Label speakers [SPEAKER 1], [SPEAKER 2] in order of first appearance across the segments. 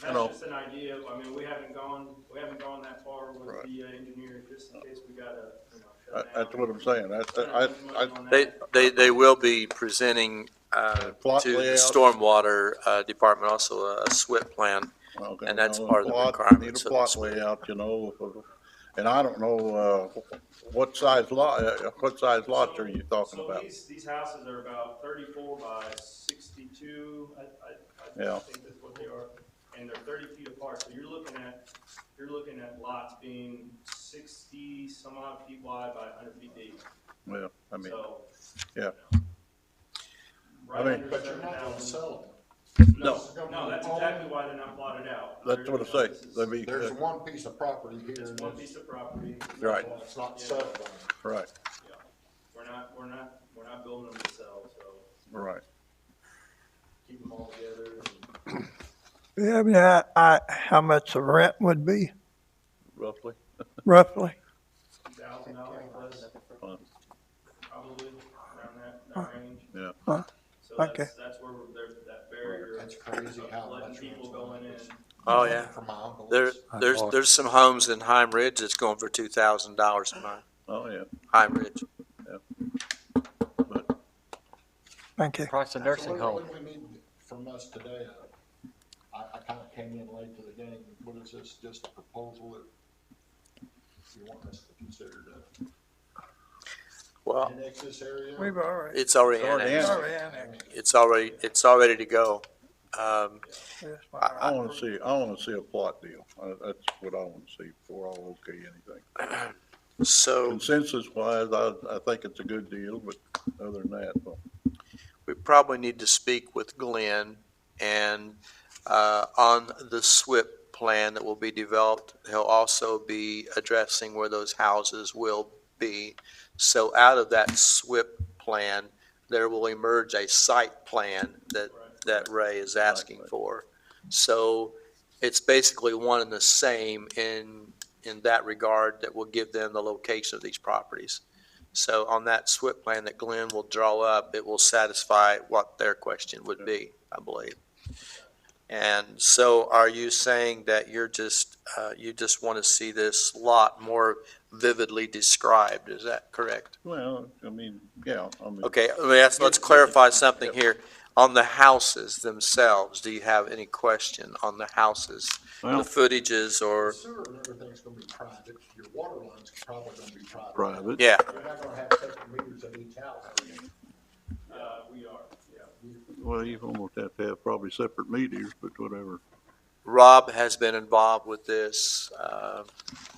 [SPEAKER 1] That's
[SPEAKER 2] know.
[SPEAKER 1] just an idea, I mean, we haven't gone, we haven't gone that far with
[SPEAKER 2] Right.
[SPEAKER 1] the uh, engineer, just in case we gotta, you know. shut
[SPEAKER 2] That- That's
[SPEAKER 1] down.
[SPEAKER 2] what I'm saying. That's,
[SPEAKER 1] Spend a
[SPEAKER 2] I,
[SPEAKER 1] bunch of
[SPEAKER 2] I,
[SPEAKER 1] money on
[SPEAKER 3] They,
[SPEAKER 1] that.
[SPEAKER 3] they, they will be presenting uh,
[SPEAKER 2] Plot
[SPEAKER 3] to the
[SPEAKER 2] layout.
[SPEAKER 3] stormwater uh, department also a a SWIP plan.
[SPEAKER 2] okay,
[SPEAKER 3] And that's
[SPEAKER 2] you know,
[SPEAKER 3] part of the
[SPEAKER 2] plot, you Need
[SPEAKER 3] requirements
[SPEAKER 2] a
[SPEAKER 3] of
[SPEAKER 2] plot
[SPEAKER 3] this.
[SPEAKER 2] layout, you know, of- and I don't know, uh, what size lot, uh, what size lots are you talking
[SPEAKER 1] So
[SPEAKER 2] about?
[SPEAKER 1] these, these houses are about thirty-four by sixty-two, I, I, I
[SPEAKER 2] Yeah.
[SPEAKER 1] think that's what they are, and they're thirty feet apart, so you're looking at, you're looking at lots being sixty some odd feet wide by hundred feet deep,
[SPEAKER 2] Well, I mean,
[SPEAKER 1] so.
[SPEAKER 2] yeah.
[SPEAKER 1] Right
[SPEAKER 2] mean-
[SPEAKER 1] under
[SPEAKER 4] But you're not
[SPEAKER 1] 7,000.
[SPEAKER 4] gonna sell
[SPEAKER 1] No, no, that's exactly why they're not plotted out.
[SPEAKER 2] that's what
[SPEAKER 1] They're-
[SPEAKER 2] I say.
[SPEAKER 1] this is-
[SPEAKER 2] They
[SPEAKER 4] them.
[SPEAKER 2] be,
[SPEAKER 4] There's one piece of property here,
[SPEAKER 1] It's
[SPEAKER 4] and
[SPEAKER 1] one
[SPEAKER 4] it's-
[SPEAKER 1] piece of property.
[SPEAKER 2] Right.
[SPEAKER 4] it's not settled on.
[SPEAKER 2] uh, right,
[SPEAKER 1] Yeah. We're not, we're not, we're not building them to sell, so
[SPEAKER 2] right.
[SPEAKER 1] keep them all together. and-
[SPEAKER 5] Do you have any I, I, how much the rent would be
[SPEAKER 2] roughly.
[SPEAKER 5] roughly?
[SPEAKER 1] thousand dollars plus,
[SPEAKER 2] Uh,
[SPEAKER 1] probably, around that, that range.
[SPEAKER 2] Yeah.
[SPEAKER 5] Huh.
[SPEAKER 1] So
[SPEAKER 5] Okay.
[SPEAKER 1] that's, that's where we're- there's that barrier
[SPEAKER 4] That's crazy how
[SPEAKER 1] of letting
[SPEAKER 4] much.
[SPEAKER 1] people
[SPEAKER 4] rent's
[SPEAKER 1] going in.
[SPEAKER 4] on.
[SPEAKER 3] Oh, yeah.
[SPEAKER 4] For my uncles.
[SPEAKER 3] There, there's, there's some homes in Heim Ridge that's going for two thousand dollars a month,
[SPEAKER 2] Oh, yeah.
[SPEAKER 3] Heim Ridge.
[SPEAKER 5] Thank you.
[SPEAKER 6] Across the nursing
[SPEAKER 4] So what-
[SPEAKER 6] home.
[SPEAKER 4] What do we need from us today? I, I kinda came in late to the game. What is this, just a proposal that you want us to consider to
[SPEAKER 3] Well,
[SPEAKER 4] annex this area?
[SPEAKER 5] We've already,
[SPEAKER 3] it's already
[SPEAKER 2] It's already
[SPEAKER 3] annexed.
[SPEAKER 5] already annexed.
[SPEAKER 3] It's already, it's already to go. Um,
[SPEAKER 5] this one.
[SPEAKER 2] I wanna see, I wanna see a plot deal. Uh, That's what I wanna see before I'll okay anything.
[SPEAKER 3] So
[SPEAKER 2] Consensus wise, I, I think it's a good deal, but other than that, well,
[SPEAKER 3] we probably need to speak with Glenn and, uh, on the SWIP plan that will be developed, he'll also be addressing where those houses will be. So out of that SWIP plan, there will emerge a site plan that, that Ray is asking for. So it's basically one and the same in, in that regard that will give them the location of these properties. So on that SWIP plan that Glenn will draw up, it will satisfy what their question would be, I believe. And so are you saying that you're just, uh, you just want to see this lot more vividly described? Is that correct?
[SPEAKER 2] well, I mean, yeah, I mean.
[SPEAKER 3] Okay, let me ask, let's clarify something here. On the houses themselves, do you have any question on the houses? The
[SPEAKER 2] Well-
[SPEAKER 3] footages or,
[SPEAKER 4] Sewer and everything's gonna be private. Your water line's probably gonna be private.
[SPEAKER 2] Private.
[SPEAKER 3] yeah,
[SPEAKER 4] You're not gonna have separate meters at each house. are you?
[SPEAKER 1] Uh, we are, yeah.
[SPEAKER 2] Well, you almost have to have probably separate meters, but whatever.
[SPEAKER 3] Rob has been involved with this. Uh,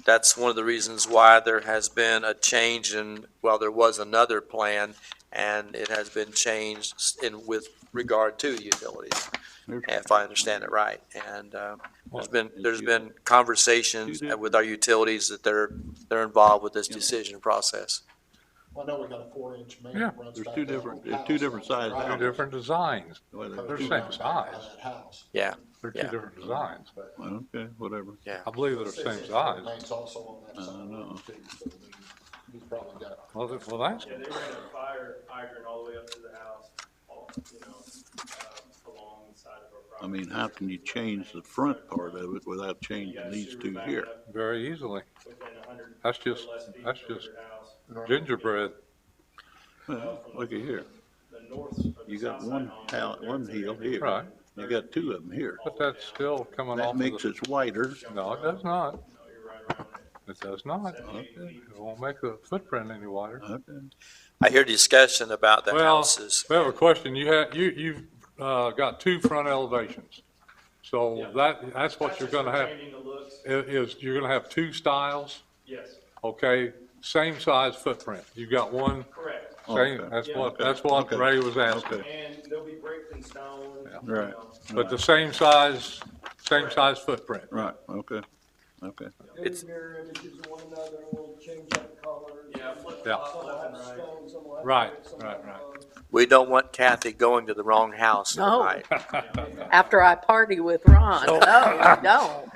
[SPEAKER 3] That's one of the reasons why there has been a change in, well, there was another plan, and it has been changed in, with regard to utilities, if I understand it right. And uh, there's been, there's been conversations with our utilities that they're, they're involved with this decision process.
[SPEAKER 4] Well, I know we got a four inch main.
[SPEAKER 7] Yeah,
[SPEAKER 4] that runs
[SPEAKER 7] there's
[SPEAKER 4] back
[SPEAKER 7] two
[SPEAKER 4] down
[SPEAKER 7] different-
[SPEAKER 4] to the
[SPEAKER 7] there's two
[SPEAKER 4] house.
[SPEAKER 7] different sizes.
[SPEAKER 4] Right.
[SPEAKER 7] Two different designs.
[SPEAKER 2] Well,
[SPEAKER 4] Because
[SPEAKER 7] They're
[SPEAKER 4] it's
[SPEAKER 7] same
[SPEAKER 4] down by
[SPEAKER 7] size.
[SPEAKER 4] that house.
[SPEAKER 3] Yeah,
[SPEAKER 7] They're two
[SPEAKER 3] Yeah.
[SPEAKER 7] different designs.
[SPEAKER 2] Okay, whatever.
[SPEAKER 7] I believe they're
[SPEAKER 4] Six
[SPEAKER 7] same
[SPEAKER 4] inch
[SPEAKER 7] size.
[SPEAKER 4] Lane's also on that
[SPEAKER 2] I
[SPEAKER 4] side. of the
[SPEAKER 2] know.
[SPEAKER 4] road, too, so I mean, He's probably got
[SPEAKER 7] Well, that- well, that's,
[SPEAKER 1] Yeah, they ran a fire hydrant all the way up to the house, all, you know, uh, along the side of our
[SPEAKER 2] I
[SPEAKER 1] property.
[SPEAKER 2] mean, how can you change the front part of it without changing these two here?
[SPEAKER 7] very easily.
[SPEAKER 1] Within a hundred.
[SPEAKER 7] That's just-
[SPEAKER 1] or less feet
[SPEAKER 7] that's
[SPEAKER 1] of your
[SPEAKER 7] just-
[SPEAKER 1] house.
[SPEAKER 7] Gingerbread,
[SPEAKER 2] Well, Look at here,
[SPEAKER 1] The north of the
[SPEAKER 2] you got
[SPEAKER 1] south
[SPEAKER 2] one
[SPEAKER 1] side home,
[SPEAKER 2] house,
[SPEAKER 1] there's
[SPEAKER 2] one
[SPEAKER 1] a-
[SPEAKER 2] hill here.
[SPEAKER 7] Right.
[SPEAKER 2] You got two of them here.
[SPEAKER 7] but that's still coming
[SPEAKER 2] That
[SPEAKER 7] off of
[SPEAKER 2] makes
[SPEAKER 7] the.
[SPEAKER 2] it wider.
[SPEAKER 7] No, it does not.
[SPEAKER 1] No, you're right around it.
[SPEAKER 7] It does not.
[SPEAKER 1] Okay.
[SPEAKER 7] It won't make the footprint any wider.
[SPEAKER 2] Okay.
[SPEAKER 3] I hear discussion about the
[SPEAKER 7] Well,
[SPEAKER 3] houses.
[SPEAKER 7] We have a question. You have, you, you've, uh, got two front elevations. So
[SPEAKER 1] Yeah.
[SPEAKER 7] that, that's what
[SPEAKER 1] That's
[SPEAKER 7] you're
[SPEAKER 1] just
[SPEAKER 7] gonna
[SPEAKER 1] for
[SPEAKER 7] have,
[SPEAKER 1] Changing the looks,
[SPEAKER 7] i- is you're gonna have two styles,
[SPEAKER 1] yes,
[SPEAKER 7] okay? Same size footprint. You've got one,
[SPEAKER 1] correct.
[SPEAKER 7] same,
[SPEAKER 2] Okay.
[SPEAKER 7] that's
[SPEAKER 1] Yeah.
[SPEAKER 7] what, that's what
[SPEAKER 2] Okay.
[SPEAKER 7] Ray was asking.
[SPEAKER 2] Okay.
[SPEAKER 1] And they'll be bricked and stone. you
[SPEAKER 2] Right.
[SPEAKER 1] know.
[SPEAKER 7] But the same size, same size footprint.
[SPEAKER 2] Right, okay, okay.
[SPEAKER 3] It's-
[SPEAKER 8] mirror images of one another, and we'll change up colors.
[SPEAKER 1] Yeah, flip
[SPEAKER 7] Yeah.
[SPEAKER 1] flop
[SPEAKER 8] Some will
[SPEAKER 1] left and
[SPEAKER 8] have
[SPEAKER 1] right.
[SPEAKER 8] stone, some will have
[SPEAKER 7] Right,
[SPEAKER 8] brick, some
[SPEAKER 7] right,
[SPEAKER 8] will have, uh,
[SPEAKER 3] We don't want Kathy going to the wrong house
[SPEAKER 9] No.
[SPEAKER 3] tonight.
[SPEAKER 9] after I party with Ron. No, you don't.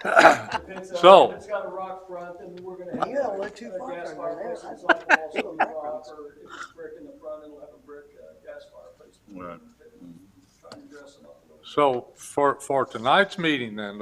[SPEAKER 8] If it's,
[SPEAKER 7] So-
[SPEAKER 8] uh, if it's got a rock front, then we're gonna have.
[SPEAKER 9] You don't
[SPEAKER 8] like,
[SPEAKER 9] look too
[SPEAKER 8] uh,
[SPEAKER 9] far
[SPEAKER 8] gas
[SPEAKER 9] from there.
[SPEAKER 8] fireplaces on the walls, some rock, or if it's brick in the front, it'll have a brick, uh, gas fireplace.
[SPEAKER 2] Right.
[SPEAKER 8] Try and dress them up a little.
[SPEAKER 7] So for, for tonight's meeting then,